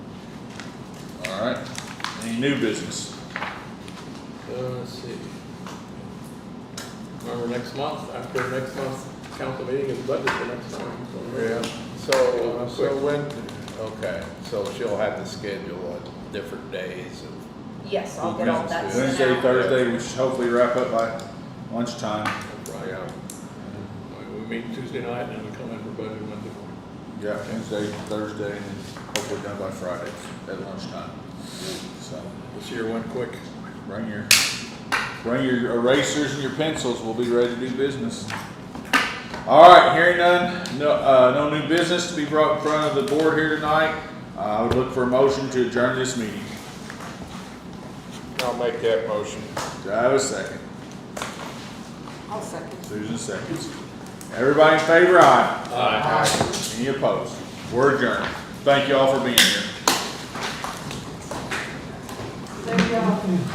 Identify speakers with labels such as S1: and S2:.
S1: Alright, any new business?
S2: Uh, let's see. Remember next month, after next month's council meeting is budget for next month. so-
S3: Yeah, so, so when, okay, so she'll have to schedule on different days of,
S4: Yes, I'll get all that sent
S1: Wednesday,
S4: out.
S1: Thursday, we should hopefully wrap up by lunchtime.
S2: Right.
S3: yeah,
S2: We meet Tuesday night and then we come in for budget Wednesday morning.
S1: Yeah, Wednesday, Thursday, and hopefully done by Friday at lunchtime. So,
S3: this year went quick.
S1: bring your, bring your erasers and your pencils, we'll be ready to do business. Alright, hearing none, no, uh, no new business to be brought in front of the board here tonight. Uh, I would look for a motion to adjourn this meeting.
S3: I'll make that motion.
S1: Do I have a second?
S4: I'll second.
S1: Susan seconds. Everybody in favor, aye.
S2: Aye.
S1: Any opposed? We're adjourned. Thank you all for being here.
S4: There you go.